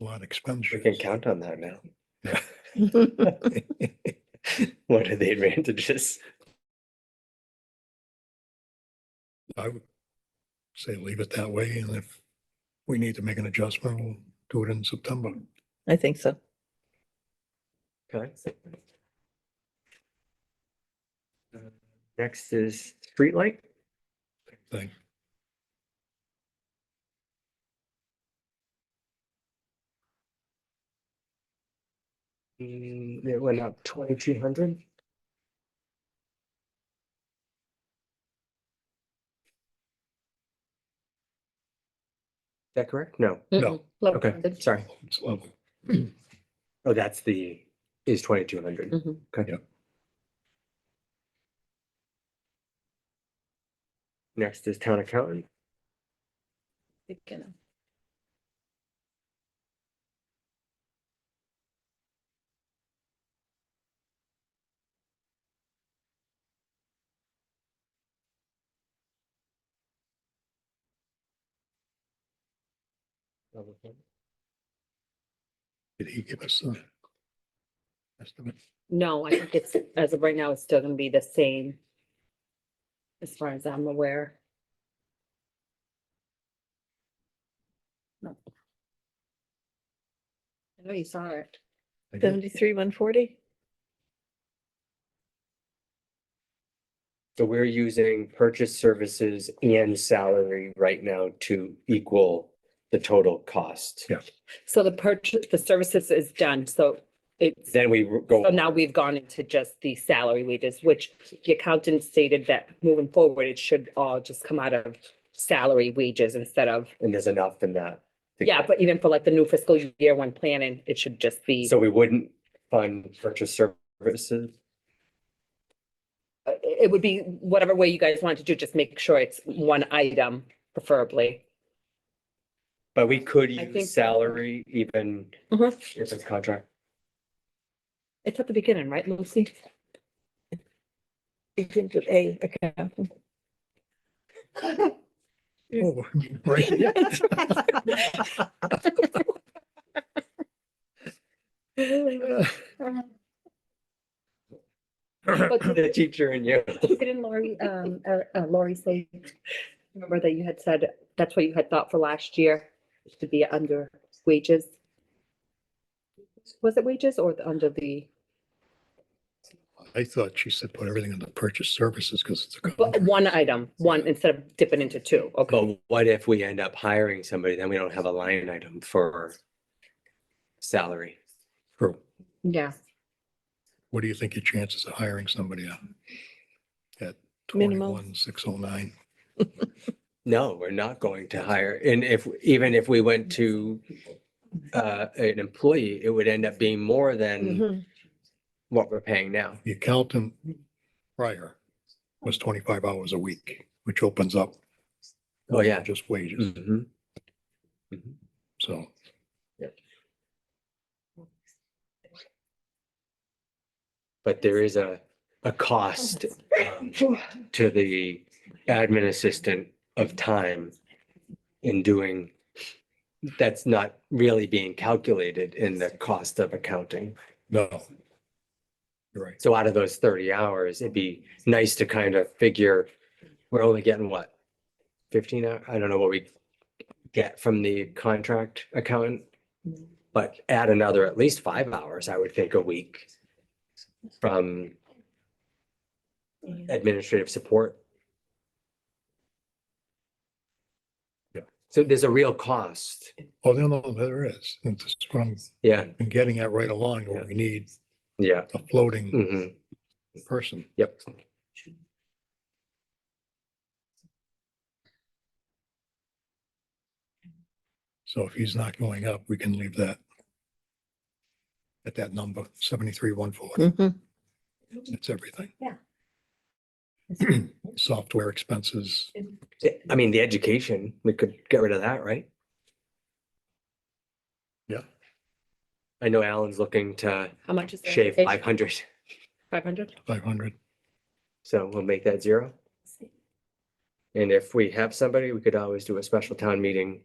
a lot of We expenditures. can count on that now. Yeah. What are the advantages? I would say leave it that way, and if we need to make an adjustment, we'll do it in September. I think so. Okay. Uh, Next is streetlight. Thing. Mm, It went up twenty-two hundred. Is that correct? No. No. Mm-hmm. Okay, sorry. It's level. Oh, that's the, is twenty-two hundred. Next is town accountant. Did he give us the estimate? No, I think it's, as of right now, it's still gonna be the same. As far as I'm aware. No. I know you saw it. I did. Seventy-three, one forty? So we're using purchase services and salary right now to equal the total cost. Yeah. So the purchase, the services is done, so it's, Then we r- go. so now we've gone into just the salary wages, which the accountant stated that moving forward, it should all just come out of salary wages instead of, And there's enough in that. to- yeah, but even for like the new fiscal year one planning, it should just be. So we wouldn't fund purchase services? uh, it it would be whatever way you guys want to do, just make sure it's one item preferably. But we could I think use so. salary even if it's contract. It's at the beginning, right, Lucy? You can do A accountant. Oh, right. Mm-hmm. The teacher and you. Didn't Lori, um, uh, uh, Lori say, remember that you had said, that's what you had thought for last year, to be under wages? Was it wages or the- under the, I thought she said put everything under purchase services because it's a but contract. one item, one instead of dipping into two, okay? But what if we end up hiring somebody, then we don't have a line item for salary? True. Yeah, What do you think your chances of hiring somebody at? At Minimal. twenty-one, six oh nine? No, we're not going to hire. And if, even if we went to uh, an employee, it would end up being more Mm-hmm. than Mhm. what we're paying now. The accountant prior was twenty-five hours a week, which opens up. Oh, yeah. Just wages, Mhm. so. But there is a, a cost um, to the admin assistant of time in doing, that's not really being calculated in the cost of accounting. No. You're right. So out of those thirty hours, it'd be nice to kind of figure, we're only getting what? Fifteen, hour- I don't know what we get from the contract accountant. But add another at least five hours, I would think, a week from administrative support. Yeah. So there's a real cost, Oh, no, no, there is. It's just from, yeah, been getting at right along, where Yeah. we need yeah, a floating mhm, person. yep. So if he's not going up, we can leave that at that number, seventy-three, one forty. Mhm. It's everything. Yeah. Software expenses, I mean, the education, we could get rid of that, right? Yeah. I know Alan's looking to how much is? shave five hundred, Five hundred? five hundred. so we'll make that zero. And if we have somebody, we could always do a special town meeting